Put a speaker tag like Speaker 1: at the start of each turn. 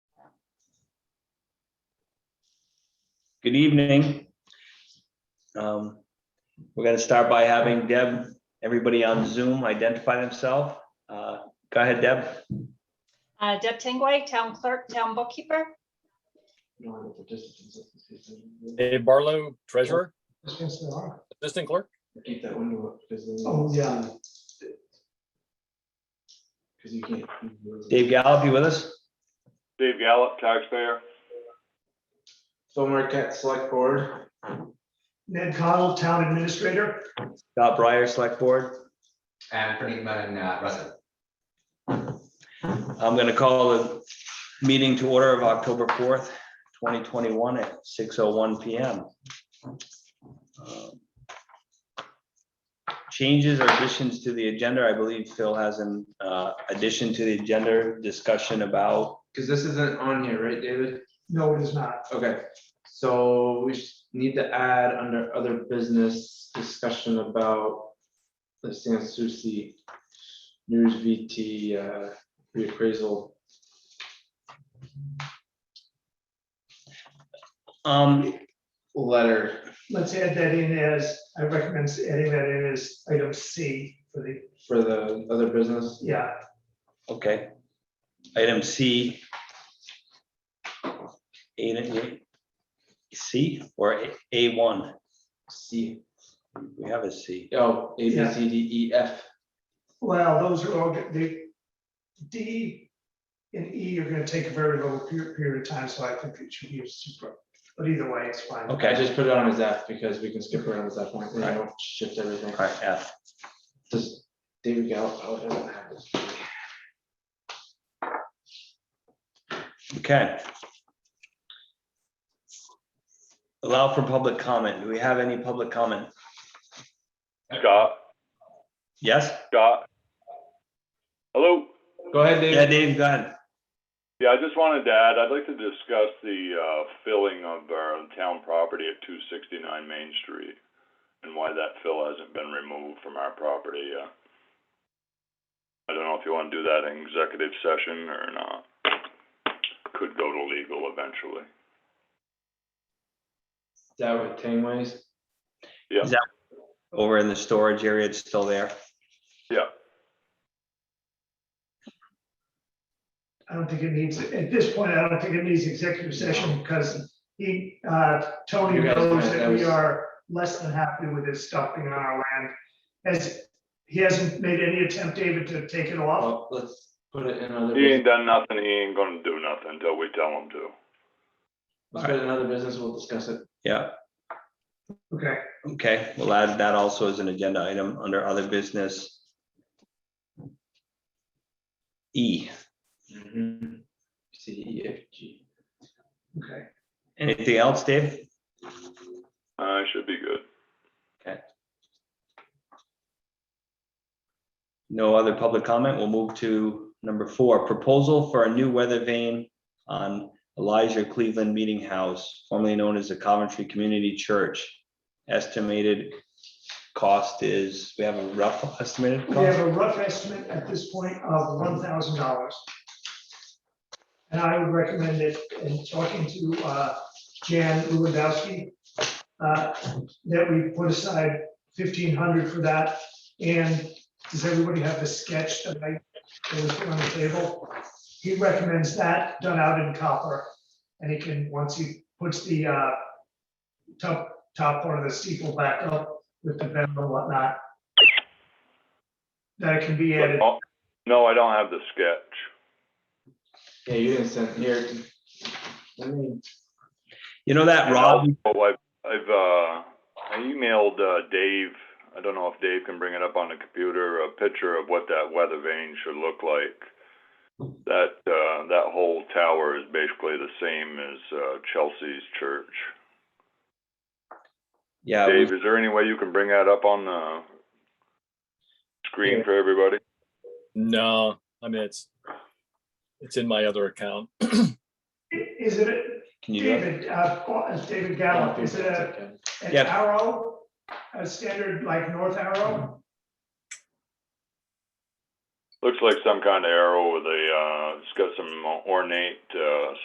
Speaker 1: Good evening. Um, We're going to start by having Deb, everybody on Zoom identify themselves. Uh, Go ahead, Deb.
Speaker 2: Uh, Deb Tingway, Town Clerk, Town Bookkeeper.
Speaker 3: Dave Barlow, treasurer,
Speaker 4: Yes, there are.
Speaker 3: assistant clerk.
Speaker 5: Keep that window up because then.
Speaker 4: Oh, yeah.
Speaker 5: Because you can't.
Speaker 1: Dave Gallup, you with us?
Speaker 6: Dave Gallup, taxpayer.
Speaker 5: Phil Marquette, select board.
Speaker 4: Ned Cottle, Town Administrator.
Speaker 1: Scott Breyer, Select Board.
Speaker 7: And Pradeep Menon, uh, Russell.
Speaker 1: I'm going to call the meeting to order of October 4th, 2021 at 6:01 PM. Uh, Changes or additions to the agenda, I believe Phil has an uh, addition to the agenda discussion about
Speaker 5: Because this isn't on here, right, David?
Speaker 4: No, it is not.
Speaker 5: Okay, so we s- need to add under other business discussion about the San Souci News VT uh, reappraisal.
Speaker 1: Um,
Speaker 5: Letter,
Speaker 4: Let's add that in as, I recommend adding that in as item C for the,
Speaker 5: for the other business.
Speaker 4: yeah,
Speaker 1: okay. Item C. A C or A one?
Speaker 5: C,
Speaker 1: We have a C.
Speaker 5: oh, A, B,
Speaker 4: Yeah.
Speaker 5: C, D, E, F.
Speaker 4: well, those are all, the D and E are gonna take a very long period, period of time, so I think it should be super, but either way, it's fine.
Speaker 5: I
Speaker 1: Okay,
Speaker 5: just put it on as F because we can skip around at that point, we
Speaker 1: Right.
Speaker 5: don't shift everything.
Speaker 1: all right, F.
Speaker 5: Does David Gallup, oh, it doesn't have this.
Speaker 1: Okay. Allow for public comment. Do we have any public comment?
Speaker 6: Scott,
Speaker 1: Yes?
Speaker 6: Scott. Hello?
Speaker 5: Go ahead,
Speaker 1: Yeah,
Speaker 5: David.
Speaker 1: Dave, go ahead.
Speaker 6: Yeah, I just wanted to add, I'd like to discuss the uh, filling of our town property at 269 Main Street and why that fill hasn't been removed from our property yet. I don't know if you want to do that in executive session or not. Could go to legal eventually.
Speaker 5: Is That with Tangways.
Speaker 1: Over in the storage area, it's still there.
Speaker 4: I don't think it needs, at this point, I don't think it needs executive session because he, uh, Tony
Speaker 5: You guys
Speaker 4: knows
Speaker 5: might- that
Speaker 4: that we
Speaker 5: was-
Speaker 4: are less than happy with his stuff being on our land. As, he hasn't made any attempt, David, to take it off.
Speaker 5: Well, let's put it in other,
Speaker 6: He
Speaker 5: business.
Speaker 6: ain't done nothing, he ain't gonna do nothing until we tell him to.
Speaker 5: let's put it in other business, we'll discuss it.
Speaker 1: Yeah,
Speaker 4: Okay,
Speaker 1: okay. We'll add that also as an agenda item under other business. E,
Speaker 5: Mm-hmm. C, E, F, G.
Speaker 4: okay.
Speaker 1: anything else, Dave?
Speaker 6: Uh, should be good.
Speaker 1: No other public comment. We'll move to number four, proposal for a new weather vane on Elijah Cleveland Meeting House, formerly known as the Coventry Community Church. Estimated cost is, we have a rough estimated
Speaker 4: We have
Speaker 1: cost.
Speaker 4: a rough estimate at this point of one thousand dollars. And I would recommend that in talking to uh, Jan Lewandowski, uh, that we put aside fifteen hundred for that. And does everybody have the sketch that I, that was put on the table? He recommends that done out in copper. And he can, once he puts the uh, top, top part of the steeple back up with the bend and whatnot, that it can be added.
Speaker 6: Oh, No, I don't have the sketch.
Speaker 5: Yeah, you didn't send here. Let me-
Speaker 1: You know that,
Speaker 6: And
Speaker 1: Rob?
Speaker 6: also, I've, I've, uh, I emailed, uh, Dave, I don't know if Dave can bring it up on the computer, a picture of what that weather vane should look like. That, uh, that whole tower is basically the same as, uh, Chelsea's church.
Speaker 1: Yeah, we-
Speaker 6: Dave, is there any way you can bring that up on the screen
Speaker 5: Yeah.
Speaker 6: for everybody?
Speaker 3: No, I mean, it's, it's in my other account.
Speaker 4: Is it, a-
Speaker 1: can you, do that?
Speaker 4: David, uh, Paul- uh, David
Speaker 5: I don't
Speaker 4: Gallup,
Speaker 5: think
Speaker 4: is it
Speaker 5: that's
Speaker 4: a-
Speaker 5: okay.
Speaker 4: an
Speaker 1: Yeah.
Speaker 4: arrow, a standard like north arrow?
Speaker 6: Looks like some kind of arrow with a, uh, it's got some ornate, uh,